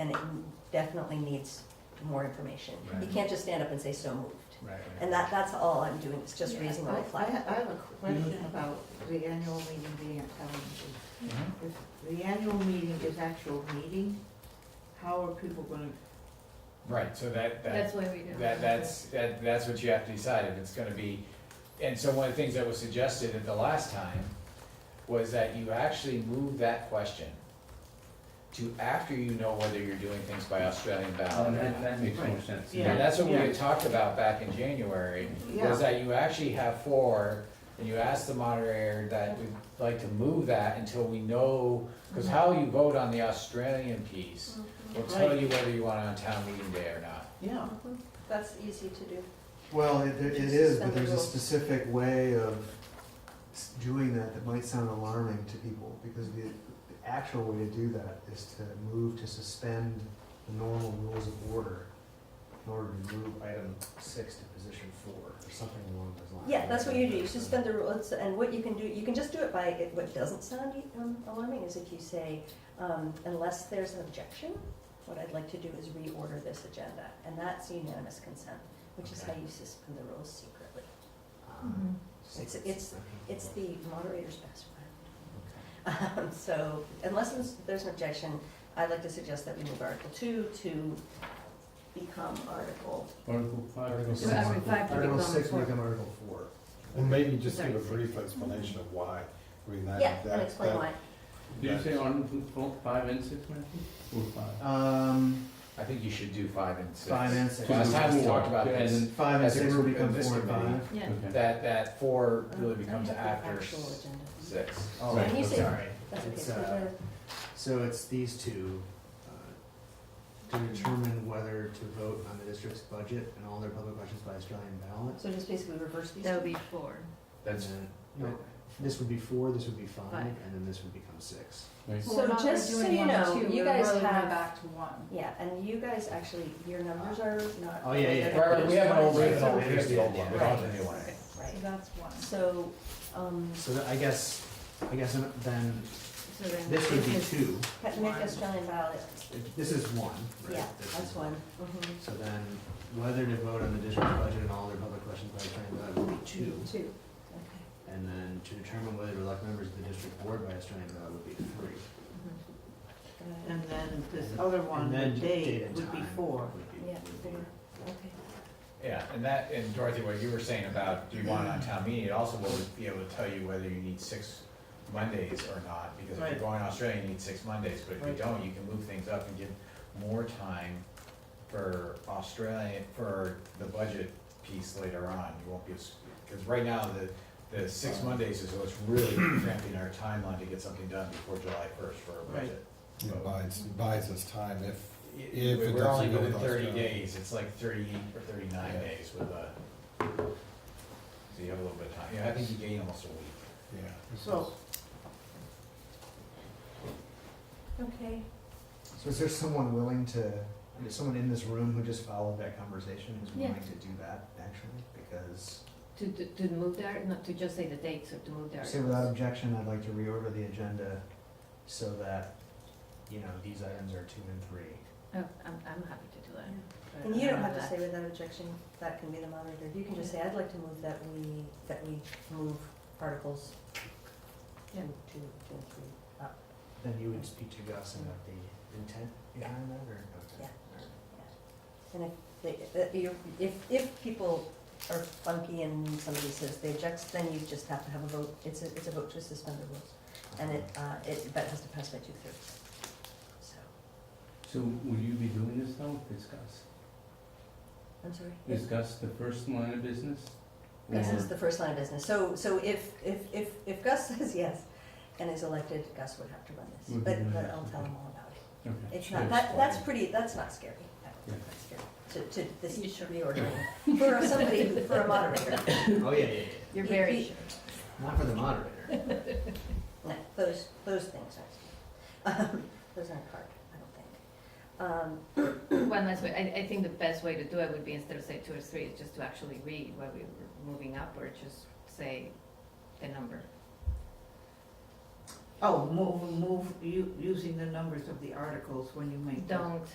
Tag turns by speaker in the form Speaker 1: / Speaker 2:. Speaker 1: it definitely needs more information. You
Speaker 2: Right.
Speaker 1: can't just stand up and say, so moved.
Speaker 2: Right, right.
Speaker 1: And that, that's all I'm doing, is just
Speaker 3: Yeah,
Speaker 1: raising a
Speaker 4: I-
Speaker 1: red
Speaker 4: I,
Speaker 1: flag.
Speaker 4: I have a question about the annual meeting being at town meeting.
Speaker 2: Mhm.
Speaker 4: If the annual meeting is actual meeting, how are people gonna,
Speaker 2: Right, so that, that,
Speaker 3: That's why we do.
Speaker 2: that, that's, that, that's what you have to decide, if it's gonna be, and so one of the things that was suggested at the last time was that you actually move that question to after you know whether you're doing things by Australian
Speaker 5: Oh,
Speaker 1: Uh,
Speaker 2: ballot or
Speaker 5: that,
Speaker 2: not.
Speaker 5: that makes more sense.
Speaker 4: Yeah.
Speaker 2: And that's what we
Speaker 4: Yeah.
Speaker 2: had talked about back in January,
Speaker 4: Yeah.
Speaker 2: was that you actually have four, and you ask the moderator that we'd like to move that until we know, because how you vote on the Australian piece
Speaker 1: Mm-hmm.
Speaker 2: will tell you whether you want it on town meeting day or not.
Speaker 4: yeah,
Speaker 1: That's easy to do.
Speaker 6: Well, it, it is, but there's a
Speaker 1: Suspendable.
Speaker 6: specific way of s- doing that that might sound alarming to people, because the, the actual way to do that is to move to suspend the normal rules of order in order to move item six to position four, or something along those lines.
Speaker 1: Yeah, that's what you do, you suspend the rules, and what you can do, you can just do it by, what doesn't sound um, alarming is if you say, um, unless there's an objection, what I'd like to do is reorder this agenda, and that's unanimous consent, which is how you suspend the rules secretly.
Speaker 6: Ah,
Speaker 3: Mhm.
Speaker 6: six,
Speaker 1: It's- it's-
Speaker 6: okay.
Speaker 1: It's the moderator's best friend. Um, So unless there's- there's an objection, I'd like to suggest that we move Article Two to become Article,
Speaker 5: Article five.
Speaker 6: Article six.
Speaker 3: Article five to
Speaker 6: Article
Speaker 3: become
Speaker 6: six
Speaker 3: four.
Speaker 6: become article four.
Speaker 7: Well, maybe just
Speaker 3: Sorry.
Speaker 7: give a brief explanation of why. I mean, that,
Speaker 1: yeah,
Speaker 7: that-
Speaker 1: and explain
Speaker 7: that-
Speaker 1: why.
Speaker 5: Did you say article four, five and six, Matthew? Four, five.
Speaker 6: Um,
Speaker 2: I think you should do five and six.
Speaker 6: five and six.
Speaker 2: Last time we talked about
Speaker 5: Yeah,
Speaker 2: this,
Speaker 5: and-
Speaker 6: Five and
Speaker 2: As a
Speaker 6: six will
Speaker 2: group
Speaker 6: become
Speaker 2: of this
Speaker 6: four and
Speaker 2: committee.
Speaker 6: five.
Speaker 1: Yeah.
Speaker 5: Okay.
Speaker 2: that, that four really
Speaker 1: Um, I
Speaker 2: becomes
Speaker 1: have the
Speaker 2: after
Speaker 1: Actual
Speaker 2: s-
Speaker 1: agenda.
Speaker 2: six.
Speaker 6: Oh,
Speaker 1: Can you
Speaker 6: I'm
Speaker 1: say-
Speaker 6: sorry.
Speaker 1: That's okay,
Speaker 6: It's,
Speaker 1: so
Speaker 6: uh,
Speaker 1: the-
Speaker 6: So it's these two, uh, to determine whether to vote on the district's budget and all their public elections by Australian ballot.
Speaker 1: So just basically reverse these?
Speaker 3: That would be four.
Speaker 2: That's,
Speaker 6: And then, no, This would be four, this would be five,
Speaker 3: Five.
Speaker 6: and then this would become six.
Speaker 1: So just so you know, you guys have-
Speaker 3: back to one.
Speaker 1: Yeah, and you guys actually, your numbers are not.
Speaker 6: Oh, yeah, yeah.
Speaker 1: they're
Speaker 2: Right, right, we have an old
Speaker 1: not-
Speaker 2: one.
Speaker 6: Here's the old one.
Speaker 2: we don't have a new one.
Speaker 1: Right,
Speaker 3: that's one.
Speaker 1: so, um,
Speaker 6: So that, I guess, I guess then,
Speaker 3: So then
Speaker 6: this would be
Speaker 3: is-
Speaker 6: two,
Speaker 1: make Australian ballot,
Speaker 6: If- this is one, right?
Speaker 1: yeah,
Speaker 6: This
Speaker 1: that's
Speaker 6: is-
Speaker 1: one. Mhm.
Speaker 6: So then, whether to vote on the district's budget and all their public elections by Australian ballot would be two.
Speaker 1: Two,
Speaker 6: And then to determine whether to elect members of the district board by Australian ballot would be three.
Speaker 1: okay.
Speaker 4: and then this other one,
Speaker 6: And
Speaker 4: the
Speaker 6: then
Speaker 4: date
Speaker 6: and
Speaker 4: would be
Speaker 6: time
Speaker 4: four.
Speaker 6: would be-
Speaker 1: Yeah,
Speaker 6: would be-
Speaker 1: four. Okay.
Speaker 2: yeah, and that, and Dorothy, what you were saying about, do you want it on town meeting, it also would be able to tell you whether you need six Mondays or not, because if you're
Speaker 4: Right.
Speaker 2: going to Australia, you need six Mondays, but if you
Speaker 4: Right.
Speaker 2: don't, you can move things up and give more time for Australia, for the budget piece later on, you won't be, because right now, the, the six Mondays is what's really cramping our timeline to get something done before July first for our
Speaker 4: Right.
Speaker 2: budget.
Speaker 7: It buys, buys us time if,
Speaker 2: If
Speaker 7: it
Speaker 2: we're only
Speaker 7: doesn't go
Speaker 2: within
Speaker 7: with
Speaker 2: thirty
Speaker 7: Australia.
Speaker 2: days, it's like thirty or thirty-nine
Speaker 7: Yeah.
Speaker 2: days with a, so you have a little bit of time, yeah, I think you gain almost a week.
Speaker 7: yeah.
Speaker 4: So,
Speaker 1: Okay,
Speaker 6: So is there someone willing to, is someone in this room who just followed that conversation who's
Speaker 3: Yeah.
Speaker 6: willing to do that actually? Because,
Speaker 3: To, to, to move the, art- not to just say the dates or to move the
Speaker 6: say
Speaker 3: articles.
Speaker 6: without objection, I'd like to reorder the agenda so that, you know, these items are two and three.
Speaker 3: Oh, I'm, I'm happy to do that.
Speaker 1: and you don't have to
Speaker 3: That.
Speaker 1: say without objection, that can be the moderator, you can just say, I'd like to move that we, that we move articles two,
Speaker 3: Yeah.
Speaker 1: two, two, and three up.
Speaker 6: Then you would speak to Gus about the intent behind that or? okay.
Speaker 1: And if, they- uh, you're- if, if people are funky and somebody says they object, then you just have to have a vote, it's a, it's a vote to suspend the rules. And it, uh, it, that has to pass by two thirds. So,
Speaker 5: So will you be doing this now, discuss?
Speaker 1: I'm sorry.
Speaker 5: Discuss the first line of business?
Speaker 1: Gus is
Speaker 5: Or-
Speaker 1: the first line of business. So, so if, if, if, if Gus says yes and is elected, Gus would have to run this.
Speaker 5: Would
Speaker 1: But,
Speaker 5: run
Speaker 1: but
Speaker 5: it,
Speaker 1: I'll tell
Speaker 5: okay.
Speaker 1: him all about it.
Speaker 5: Okay.
Speaker 1: It's
Speaker 5: Sure.
Speaker 1: not, that, that's pretty, that's not scary. I don't think
Speaker 5: Yeah.
Speaker 1: that's scary. To, to this
Speaker 3: You sure?
Speaker 1: reordering, for somebody, who- for a moderator.
Speaker 6: Oh, yeah, yeah, yeah.
Speaker 3: You're
Speaker 1: It-
Speaker 3: very
Speaker 1: it-
Speaker 3: sure.
Speaker 6: Not for the moderator.
Speaker 1: No, those, those things aren't, um, those aren't hard, I don't think. Um,
Speaker 3: One last way, I, I think the best way to do it would be instead of say two or three, is just to actually read what we were moving up, or just say the number.
Speaker 2: Mm-hmm.
Speaker 4: oh, move, move, u- using the numbers of the articles when you make the
Speaker 3: Don't